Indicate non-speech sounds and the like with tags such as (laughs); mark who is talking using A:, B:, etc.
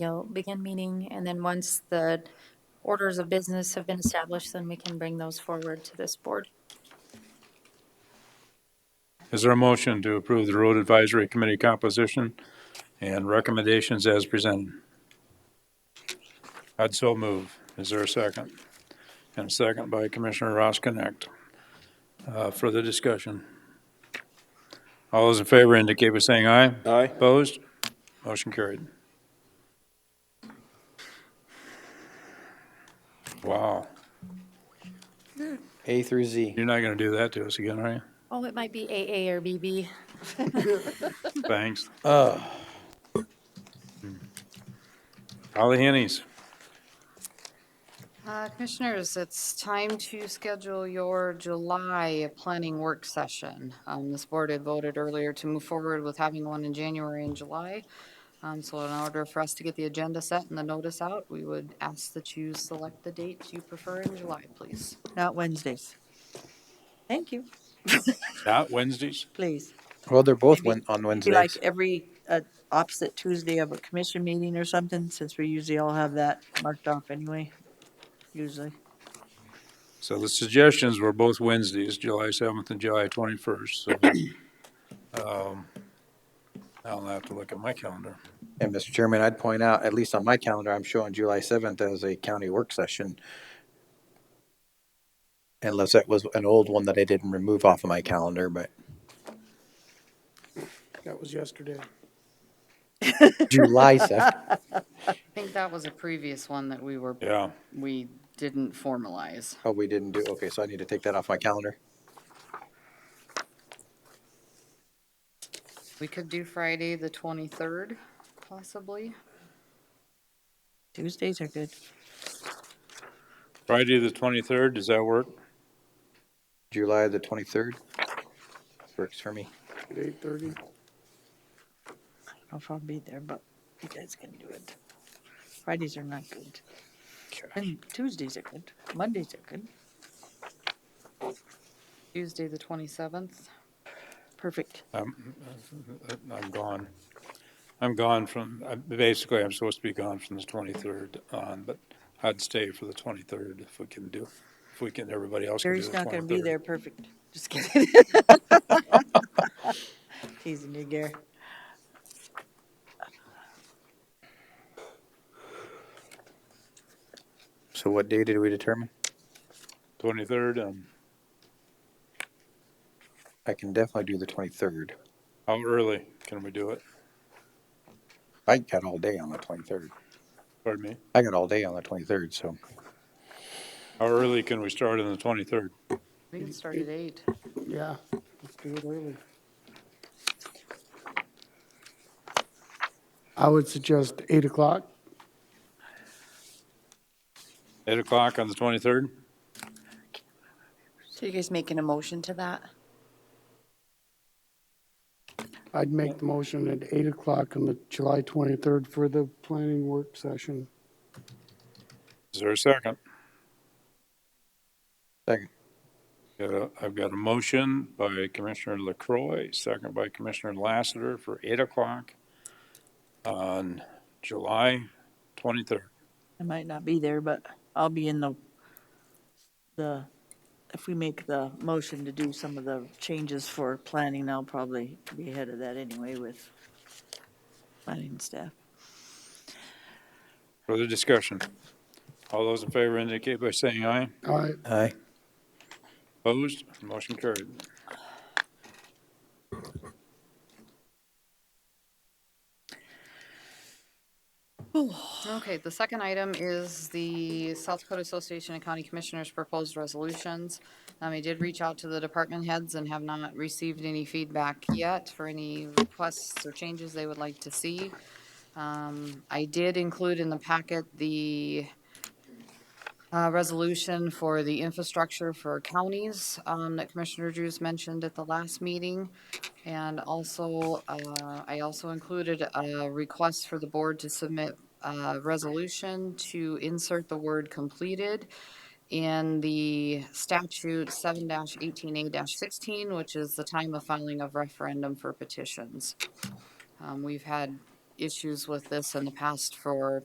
A: you'll begin meeting, and then once the orders of business have been established, then we can bring those forward to this board.
B: Is there a motion to approve the road advisory committee composition and recommendations as presented? I'd so move. Is there a second? And a second by Commissioner Ross Connect. Uh, further discussion? All those in favor indicate by saying aye.
C: Aye.
B: Opposed? Motion carried. Wow,
C: A through Z.
B: you're not gonna do that to us again, are you?
A: Oh, it might be AA or BB.
B: Thanks.
C: Uh,
B: Holly Hennies.
D: Uh, Commissioners, it's time to schedule your July planning work session. Um, This board had voted earlier to move forward with having one in January and July. Um, So in order for us to get the agenda set and the notice out, we would ask that you select the date you prefer in July, please.
E: Not Wednesdays. Thank you,
B: Not Wednesdays?
E: please.
C: well, they're both
E: Maybe-
C: went on
E: Be like
C: Wednesdays.
E: every uh, opposite Tuesday of a commission meeting or something, since we usually all have that marked off anyway, usually.
B: So the suggestions were both Wednesdays, July 7th and July 21st. So, um, I'll have to look at my calendar.
C: And Mr. Chairman, I'd point out, at least on my calendar, I'm showing July seventh as a county work session. Unless that was an old one that I didn't remove off of my calendar, but
F: That was yesterday.
C: (laughs) July seventh.
D: I think that was a previous one that we were,
B: Yeah,
D: we didn't formalize.
C: Oh, we didn't do, okay, so I need to take that off my calendar.
D: We could do Friday, the 23rd, possibly.
E: Tuesdays are good.
B: Friday, the 23rd, does that work?
C: July the twenty-third. Works for me.
F: At eight thirty.
E: I don't know if I'll be there, but you guys can do it. Fridays are not good. And Tuesdays are good. Mondays are good.
D: Tuesday, the 27th.
E: Perfect.
B: I'm Uh, I'm gone. I'm gone from, I- basically, I'm supposed to be gone from the 23rd on, but I'd stay for the 23rd if we can do, if we can, everybody else can do the
E: Gary's
B: 23rd.
E: not gonna be there, perfect. Just kidding. (laughs) Teasing you, Gary.
C: So what day did we determine?
B: 23rd, um,
C: I can definitely do the twenty-third.
B: how early can we do it?
C: I got all day on the twenty-third.
B: Pardon me?
C: I got all day on the twenty-third, so
B: How early can we start on the 23rd?
D: We can start at 8.
F: Yeah, let's do it early. I would suggest eight o'clock.
B: 8 o'clock on the 23rd?
G: So you guys making a motion to that?
F: I'd make the motion at eight o'clock on the July twenty-third for the planning work session.
B: Is there a second?
C: Second.
B: Got a- I've got a motion by Commissioner LaCroy, second by Commissioner Lassiter for 8 o'clock on July 23rd.
E: I might not be there, but I'll be in the, the, if we make the motion to do some of the changes for planning, I'll probably be ahead of that anyway with planning staff.
B: Further discussion? All those in favor indicate by saying aye.
F: All right,
C: Aye.
B: Opposed? Motion carried.
D: Okay, the second item is the South Dakota Association of County Commissioners proposed resolutions. Um, I did reach out to the department heads and have not received any feedback yet for any requests or changes they would like to see. Um, I did include in the packet the uh, resolution for the infrastructure for counties, um, that Commissioner Drews mentioned at the last meeting. And also, uh, I also included a request for the board to submit a resolution to insert the word completed in the statute seven eighteen A sixteen, which is the time of filing of referendum for petitions. Um, we've had issues with this in the past for